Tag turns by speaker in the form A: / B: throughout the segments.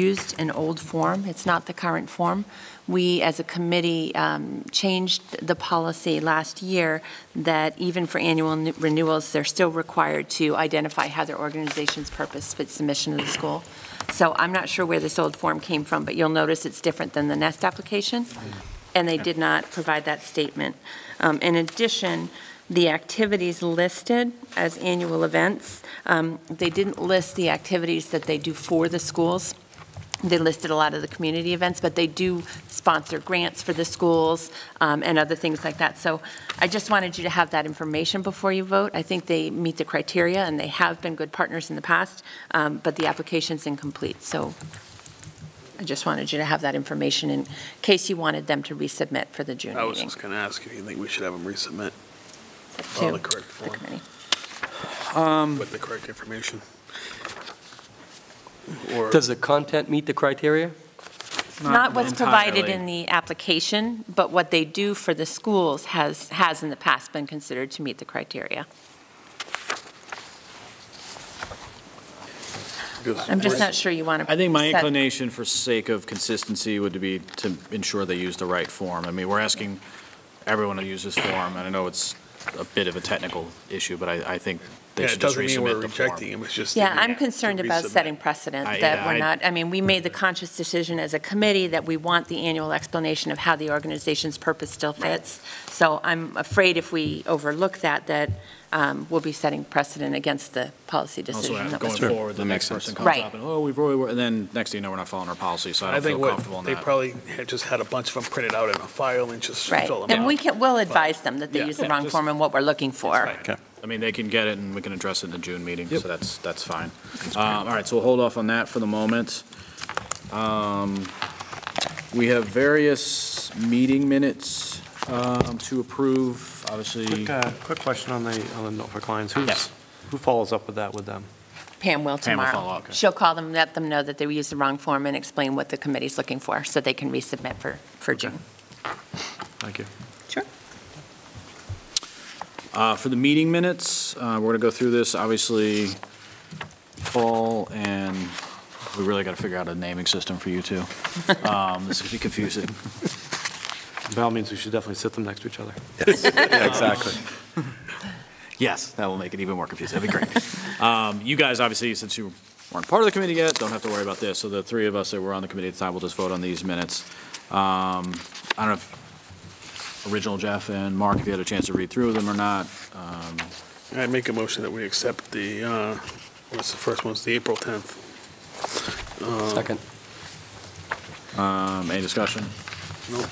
A: used an old form, it's not the current form. We, as a committee, um, changed the policy last year that even for annual n- renewals, they're still required to identify how their organization's purpose fits the mission of the school. So I'm not sure where this old form came from, but you'll notice it's different than the Nest application, and they did not provide that statement. Um, In addition, the activities listed as annual events, um, they didn't list the activities that they do for the schools they listed a lot of the community events, but they do sponsor grants for the schools um, and other things like that. So I just wanted you to have that information before you vote. I think they meet the criteria, and they have been good partners in the past, um, but the application's incomplete. So I just wanted you to have that information in case you wanted them to resubmit for the June
B: I was
A: meeting.
B: just going to ask if you think we should have them resubmit
A: to
B: all the correct
A: the
B: form.
A: committee.
B: with the correct information. Or,
C: Does the content meet the criteria?
A: Not what's provided
D: entirely.
A: in the application, but what they do for the schools has, has in the past been considered to meet the criteria.
B: because
A: I'm just not sure you want to.
D: I think my inclination for sake of consistency would be to ensure they use the right form. I mean, we're asking everyone to use this form, and I know it's a bit of a technical issue, but I, I think
B: Yeah,
D: they
B: it
D: should just
B: doesn't mean we're
D: resubmit the
B: rejecting
D: form.
B: them, it's just.
A: Yeah,
B: that we
A: I'm
B: have to
A: concerned about
B: resubmit.
A: setting precedent
D: I-
A: that we're
D: I-
A: not, I mean, we made the conscious decision as a committee that we want the annual explanation of how the organization's purpose still fits. So I'm afraid if we overlook that, that um, we'll be setting precedent against the policy
D: Also,
A: decision that
D: going
A: was.
D: forward, the next person comes
A: Right.
D: up, and, oh, we've already, and then next thing you know, we're not following our policy, so I
B: I
D: don't feel
B: think
D: comfortable in
B: what, they
D: that.
B: probably had just had a bunch of them printed out in a file and just
A: Right,
B: fill them out.
A: and we can, we'll advise them that they
B: Yeah.
A: use the
D: Yeah,
A: wrong
D: just-
A: form and what we're looking for.
D: Right. I mean, they can get it, and we can address it in the June meeting, so that's, that's fine. Um, All right, so we'll hold off on that for the moment. Um, We have various meeting minutes um, to approve, obviously.
E: Quick, uh, quick question on the, on the note for clients.
D: Yes.
E: Who's, who follows up with that with them?
A: Pam will
D: Pam will
A: tomorrow.
D: follow up, okay.
A: She'll call them, let them know that they used the wrong form and explain what the committee's looking for, so they can resubmit for, for June.
E: Thank you.
A: Sure.
D: Uh, For the meeting minutes, uh, we're going to go through this, obviously, Paul and, we really got to figure out a naming system for you two. Um, This could be confusing.
E: By all means, we should definitely sit them next to each other.
F: Exactly.
D: Yes, that will make it even more confusing. That'd be great. Um, You guys, obviously, since you weren't part of the committee yet, don't have to worry about this. So the three of us that were on the committee at the time will just vote on these minutes. Um, I don't know if original Jeff and Mark, if you had a chance to read through them or not. Um,
B: I make a motion that we accept the, uh, what's the first one, it's the April 10th.
F: Second.
D: um, Any discussion?
B: Nope.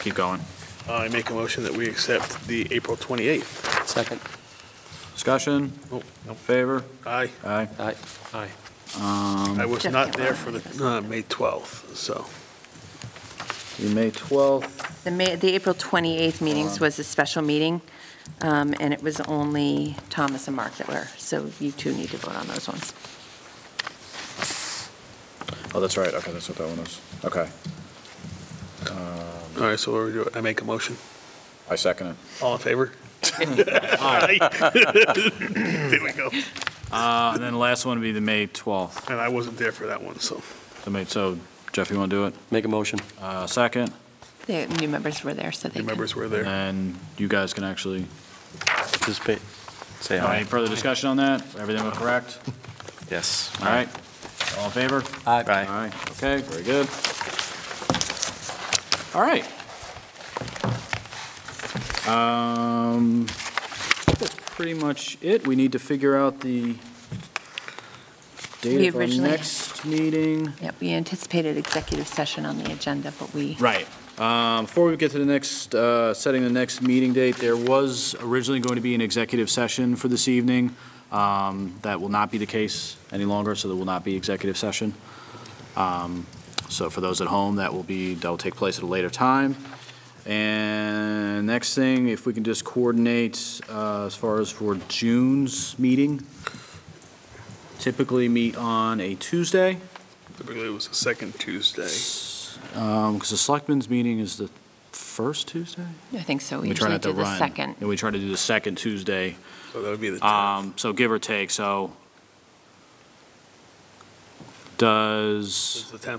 D: Keep going.
B: I make a motion that we accept the April 28th.
F: Second.
D: Discussion?
B: Nope.
D: Favor?
B: I,
D: Aye.
F: Aye.
E: Aye.
B: I was
A: Jeff
B: not
A: Um, can't
B: there
A: vote.
B: for the, uh, May 12th, so.
D: The May 12th,
A: The May, the April 28th meetings
D: Um,
A: was a special meeting, um, and it was only Thomas and Mark that were, so you two need to vote on those ones.
D: oh, that's right. Okay, that's what that one was. Okay,
B: All right, so what do we do, I make a motion.
D: I second it.
B: All in favor? There we go.
D: Uh, And then the last one would be the May 12th.
B: And I wasn't there for that one, so.
D: The May- So Jeff, you want to do it?
F: Make a motion.
D: Uh, Second?
A: The new members were there, so they
B: The
A: can.
B: members were there.
D: And you guys can actually,
F: Participate. Say
D: any further discussion on that? Everything look correct?
F: Yes.
D: All right, all in favor?
F: Aye.
D: All right, okay, very good. All right. Um, I think that's pretty much it. We need to figure out the
A: We
D: date of our
A: originally-
D: next meeting.
A: Yeah, we anticipated executive session on the agenda, but we,
D: Right. Um, Before we get to the next, uh, setting the next meeting date, there was originally going to be an executive session for this evening. Um, That will not be the case any longer, so there will not be executive session. Um, So for those at home, that will be, that will take place at a later time. And next thing, if we can just coordinate uh, as far as for June's meeting, typically meet on a Tuesday.
B: Typically, it was the second Tuesday.
D: Because um, the selectmen's meeting is the first Tuesday?
A: I think so, we
D: We try
A: usually
D: not
A: do
D: to
A: the
D: run.
A: second.
D: And we try to do the second Tuesday,
B: So that would be the 10th.
D: um, so give or take, so
G: Does
D: It's the 10th.